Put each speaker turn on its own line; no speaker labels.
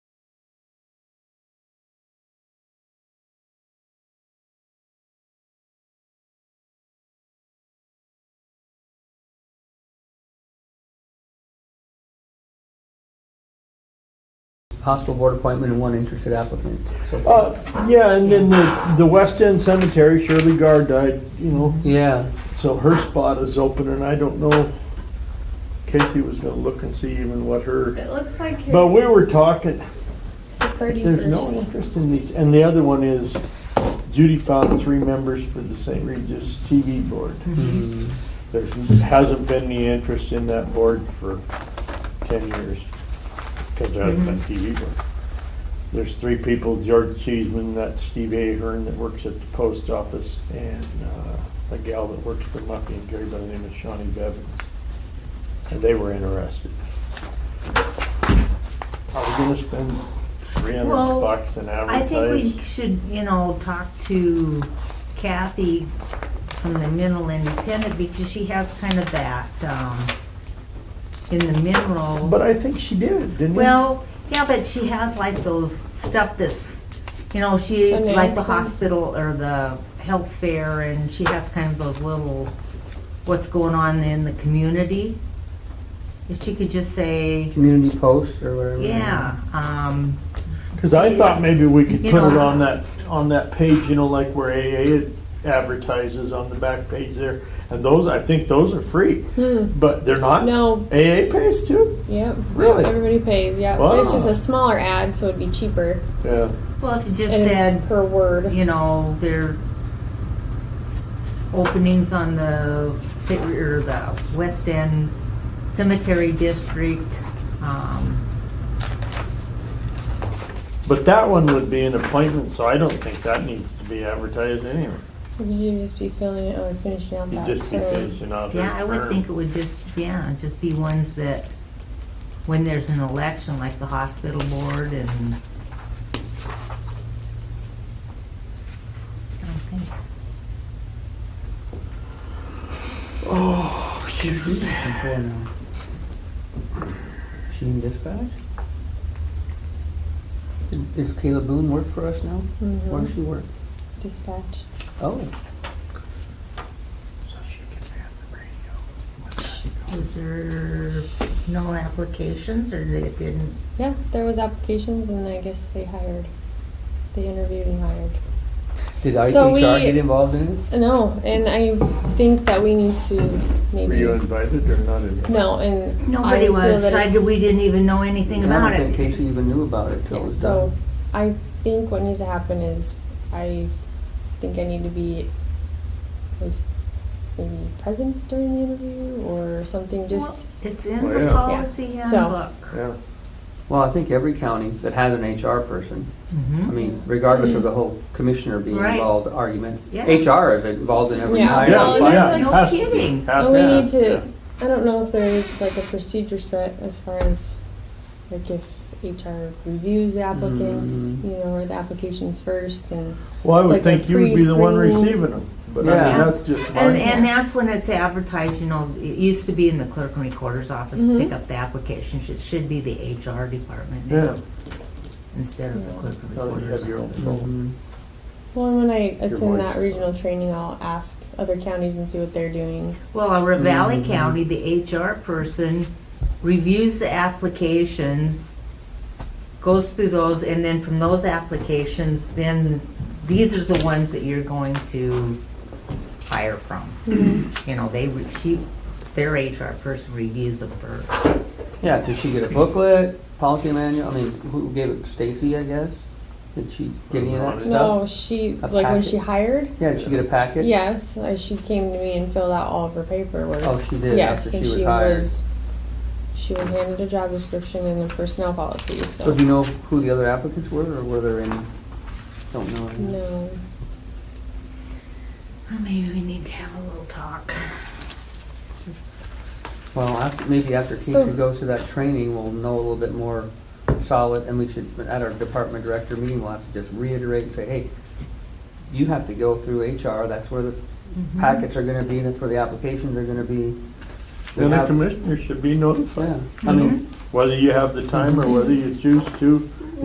possible board appointment and one interested applicant. So far.
Uh, yeah, and then the, the West End Cemetery, Shirley Gard died, you know,
Yeah,
so her spot is open, and I don't know. Casey was gonna look and see even what her,
It looks like here,
but we were talking,
the thirty
there's no
first.
interest in these, and the other one is Judy found three members for the St. Regis TV board.
Mm,
There's, hasn't been any interest in that board for ten years, because there hasn't been TV board. There's three people, George Cheeseman, that's Steve Ahern that works at the post office, and uh, the gal that works for Muffy and Gary by the name of Shawnee Bevins. And they were interested. Are we gonna spend three hundred
Well,
bucks and
I think we
advertise?
should, you know, talk to Kathy from the Mineral Independent because she has kind of that, um, in the mineral.
But I think she did, didn't we?
Well, yeah, but she has like those stuff that's, you know, she, like the
Announcements.
hospital or the health fair and she has kind of those little, what's going on in the community. If she could just say,
Community posts or whatever.
yeah, um,
Because I thought maybe we could
You
put it
know.
on that, on that page, you know, like where AA advertises on the back page there. And those, I think those are free,
Hmm,
but they're not.
no,
AA pays too?
yep.
Really?
Everybody pays, yeah. But it's just
Wow.
a smaller ad, so it'd be cheaper.
Yeah.
well, if you just
and it's
said,
Per word.
you know, their openings on the, ci- or the West End Cemetery District. um,
But that one would be an appointment, so I don't think that needs to be advertised anyway.
Because you'd just be filling it or finishing out
You
that
just be
term.
finishing out
Yeah, I
her
would
term.
think it would just, yeah, just be ones that, when there's an election, like the hospital board and. I don't think so.
Oh, shoot.
Sheen uh, dispatch? Does Kayla Boone work for us now? Where does
Mhm.
she work?
Dispatch.
Oh,
Was there no applications or they didn't?
Yeah, there was applications and I guess they hired. They interviewed and hired.
did
So
IHR
we-
get involved in it?
No, and I think that we need to
Were
maybe.
you invited or not invited?
No, and. I
Nobody
feel
was,
that
I,
it's-
we didn't even know anything about
I don't think
it.
Casey even knew about it till it
Yeah,
was
so
done.
I think what needs to happen is I think I need to be at least maybe present during the interview or something just
It's in
Well,
the
yeah.
policy
Yeah. So-
handbook.
Yeah.
Well, I think every county that has an HR person,
Mm-hmm.
I
Mhm.
mean, regardless of the whole commissioner being
Right.
involved argument,
Yeah.
HR is involved in every
Yeah.
hire.
Well,
Yeah,
and
yeah,
there's
like-
has to be,
No kidding.
has
and we
to be.
need to
Yeah.
I don't know if there is like a procedure set as far as like if HR reviews the applicants,
Mm.
you know, or the applications first and
Well, I would
like a
think you would be the one
pre-screening.
receiving them, but I mean,
Yeah.
that's just my.
And, and that's when it's advertised, you know, it used to be in the clerk and recorder's office to pick
Mhm.
up the applications. It should be the HR department
Yeah.
now, instead of the clerk and
Now that you
recorder's
have your own
office.
control.
Mhm.
well and when I
voice
attend that
is
regional training I'll ask other counties and see what they're doing.
Well, over Valley
Mhm.
County, the HR person reviews the applications, goes through those, and then from those applications, then these are the ones that you're going to hire from. You know, they, re- she, their HR person reviews them first.
Yeah, did she get a booklet, policy manual? I mean, who gave it? Stacy, I guess? Did she get any of that
No.
stuff?
No, she
A
like when
packet?
she hired
Yeah, did she get a packet?
Yes, I, she came to me and filled out all of her paperwork.
Oh, she did
yes,
after she
and
was
she
hired.
was she was handed a job description and the personnel policies. So
So do you know who the other applicants were or were there any? Don't know. any.
no,
Well, Maybe we need to have a little talk.
Well, after, maybe after
So-
Keisha goes to that training, we'll know a little bit more solid, and we should, at our department director meeting, we'll have to just reiterate and say, hey, you have to go through HR, that's where the packets are gonna be, that's where the applications are gonna be. We
Then the
have-
commissioner should be notified,
Yeah, I mean,
whether you have the time or whether you choose to